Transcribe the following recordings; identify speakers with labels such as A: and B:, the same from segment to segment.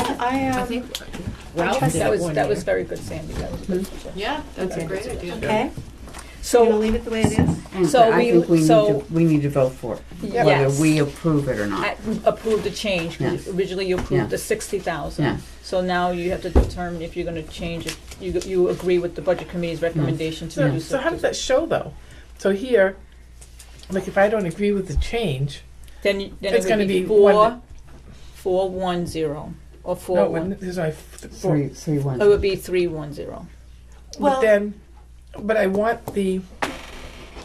A: I,
B: I
A: um,
B: think,
C: Ralph
A: trust
C: did
D: That
C: it
D: was,
C: one
D: that
C: year.
D: was very good, Sandy, that was good.
B: yeah, that's a
C: Okay.
B: great idea.
A: okay, you gonna
D: So,
A: leave it the way it is?
E: And
D: So
E: I
D: we-
E: think we need
D: so-
E: to, we need to vote for it,
D: Yep.
E: whether
D: Yes.
E: we approve it or
D: I
E: not.
D: approved the change, 'cause
E: Yeah.
D: originally you
E: Yeah.
D: approved the sixty
E: Yeah.
D: thousand. So now you have to determine if you're gonna change, if you, you agree with the budget committee's recommendation to
C: So,
D: do
C: so how does
D: so.
C: that show though? So here, like if I don't agree with the change,
D: Then, you- then
C: It's
D: it
C: gonna
D: would be
C: be one-
D: four, four one zero, or four
C: no,
D: one.
C: when there's only f- four.
E: Three, three, one.
D: It would be three one zero.
E: Mm-hmm.
C: But then, but I want the,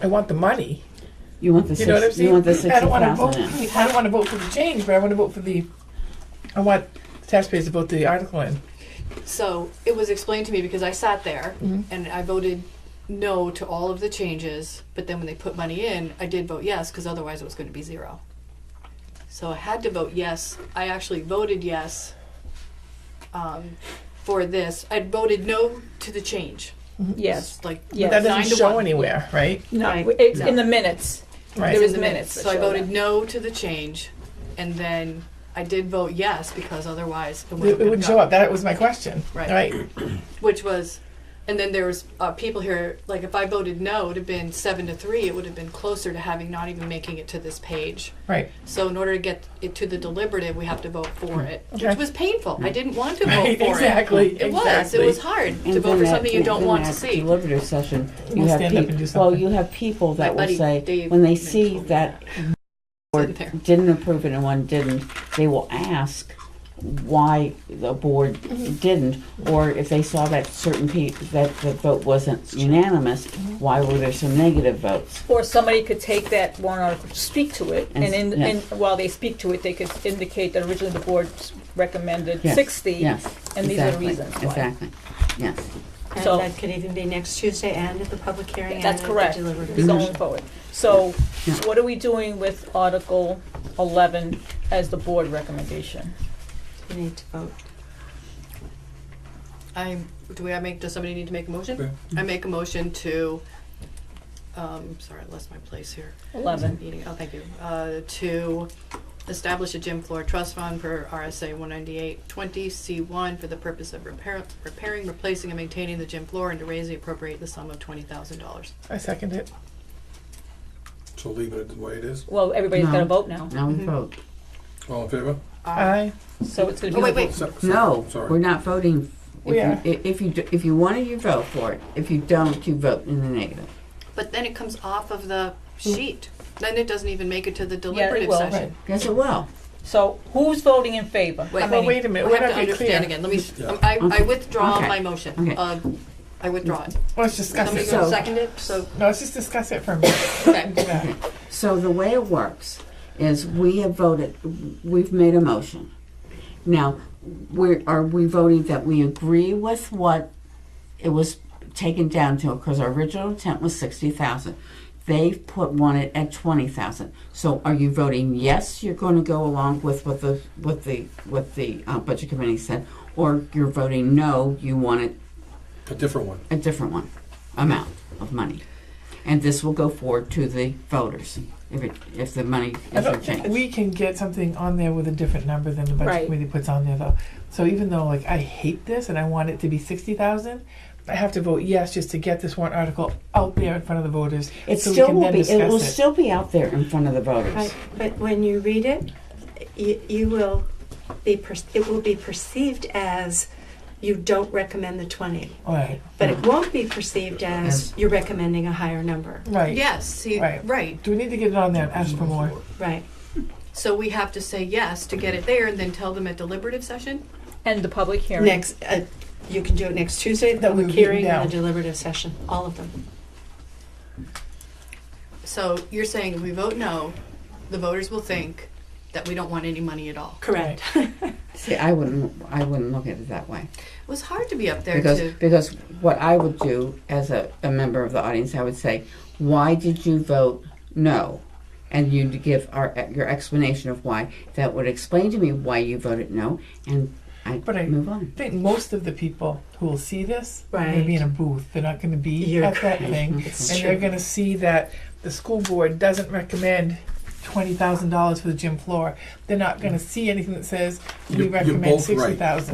C: I want the money.
E: You want the
C: You know what I'm
E: six,
C: saying?
E: you want the
C: I
E: sixty
C: don't want to vote.
E: thousand in.
C: For, I don't want to vote for the change, but I want to vote for the. I want taxpayers to vote the article in.
B: So it was explained to me because I sat there
A: Mm-hmm.
B: and I voted no to all of the changes, but then when they put money in, I did vote yes because otherwise it was going to be zero. So I had to vote yes. I actually voted yes um, for this. I voted no to the change.
D: Yes,
B: It's like
D: Yes.
C: That
B: nine
C: doesn't
B: to
C: show
B: one.
C: anywhere, right?
D: no,
A: Right.
D: it's in the minutes.
C: Right.
D: There
B: It's
D: is
B: in the
D: minutes that
B: So I
D: show
B: voted
D: that.
B: no to the change, and then I did vote yes because otherwise it
C: it,
B: wouldn't
C: it would show up. That was my question.
B: Right.
C: Right.
B: which was, and then there was uh, people here. Like if I voted no, it'd have been seven to three. It would have been closer to having not even making it to this page.
C: Right.
B: So in order to get it to the deliberative, we have to vote for it,
C: Hmm. Okay.
B: which was painful. I didn't want to vote
C: Right,
B: for
C: exactly,
B: it. It was. It was
C: exactly.
B: hard
E: And
B: to vote
E: then
B: for
E: that-
B: something you
E: and
B: don't
E: then
B: want
E: that
B: to see.
E: Deliberative session, you
C: We'll
E: have
C: stand up and
E: people,
C: do
E: well,
C: something.
E: you have people that will
B: buddy
E: say,
B: Dave
E: when they
B: Mitchell
E: see
B: did
E: that board
B: there.
E: didn't approve it and one didn't, they will ask why the board didn't, or if they saw that certain pe, that the vote wasn't unanimous, why were there some negative votes?
D: Or somebody could take that warrant article, speak to it, and in,
E: Yeah.
D: and while they speak to it, they could indicate that originally the board recommended
E: Yes,
D: sixty,
E: Yes,
D: and these are the
E: exactly,
D: reasons why.
E: Exactly, yes.
F: And
D: So-
F: that could even be next Tuesday and at the public hearing and at
D: That's
F: the
D: correct.
F: deliberative
D: It's
F: session.
D: going forward. So
E: Yeah.
D: what are we doing with Article eleven as the board recommendation?
F: You need to vote.
B: I do we I make does somebody need to make a motion? I make a motion to um sorry, I lost my place here.
D: Eleven.
B: Meeting- Oh, thank you. Uh, to establish a gym floor trust fund per RSA one ninety-eight twenty C one for the purpose of repair, repairing, replacing, and maintaining the gym floor and to raise and appropriate the sum of twenty thousand dollars.
C: I second it.
G: So leave it the way it is.
D: Well, everybody's got to
E: No.
D: vote now,
E: Now we vote.
G: All in favor?
B: Uh,
C: I
D: so it's going to
B: Oh,
D: be.
B: wait,
D: the
B: wait,
G: So- so-
E: No, we're
G: Sorry.
E: not voting. If
C: We
E: you,
C: are.
E: i- if you, do- if you want it, you vote for it. If you don't, you vote in the negative.
B: but then it comes off of the sheet. Then it doesn't even make it to the
D: it
B: deliberative
D: will.
B: session.
E: Yes, it will.
D: So who's voting in favor?
B: Wait.
D: How
C: Well,
D: many?
C: wait a minute.
B: I
C: We're
B: have
C: not
B: to
C: being clear.
B: understand again. Let me,
G: Yeah.
B: um, I, I
E: Okay.
B: withdraw
E: Okay.
B: my motion.
E: Okay.
B: Uh, I withdraw it.
C: Let's discuss
B: Somebody
C: it.
B: gonna
E: So-
B: second it, so,
C: No, let's just discuss it for a minute.
B: okay.
C: Yeah.
E: So the way it works is we have voted, we've made a motion. Now, we're, are we voting that we agree with what it was taken down to? Because our original intent was sixty thousand. They've put one at, at twenty thousand. So are you voting yes, you're going to go along with what the, what the, what the uh, budget committee said? Or you're voting no, you want it
G: A different one.
E: a different one, amount of money. And this will go forward to the voters if it, if the money
C: I
E: is
C: don't think
E: changed.
C: we can get something on there with a different number than the budget
D: Right.
C: committee puts on there, though. So even though, like, I hate this and I want it to be sixty thousand, I have to vote yes just to get this warrant article out there in front of the voters.
E: It
C: so we
E: still
C: can
E: will
C: then
E: be, it
C: discuss
E: will still be out there in front of the voters.
F: Right, but when you read it, you, you will be, per- it will be perceived as you don't recommend the twenty.
C: All right,
F: But it won't be perceived as you're recommending a higher number,
C: right.
B: Yes, see,
C: Right.
B: right.
C: Do we need to get it on there and ask for more?
F: right?
B: So we have to say yes to get it there and then tell them at deliberative session?
D: And the public hearing.
F: Next, uh, you can do it next Tuesday, the
C: That we've
F: public
C: written
F: hearing and the
C: down.
F: deliberative session, all of them.
B: So you're saying if we vote no, the voters will think that we don't want any money at all.
F: Correct.
E: See, I wouldn't, I wouldn't look at it that way.
B: It was hard to be up there
E: Because,
B: to,
E: because what I would do as a, a member of the audience, I would say, why did you vote no? And you'd give our, your explanation of why. That would explain to me why you voted no, and I'd
C: But I-
E: move on.
C: I think most of the people who will see this are going to
F: Right.
C: be in a booth. They're not going to be
F: You're
C: at that
F: correct.
C: thing,
F: It's
C: and
F: true.
C: they're going to see that the school board doesn't recommend twenty thousand dollars for the gym floor. They're not gonna see anything that says we
G: You're- you're
C: recommend
G: both right.
C: sixty thousand.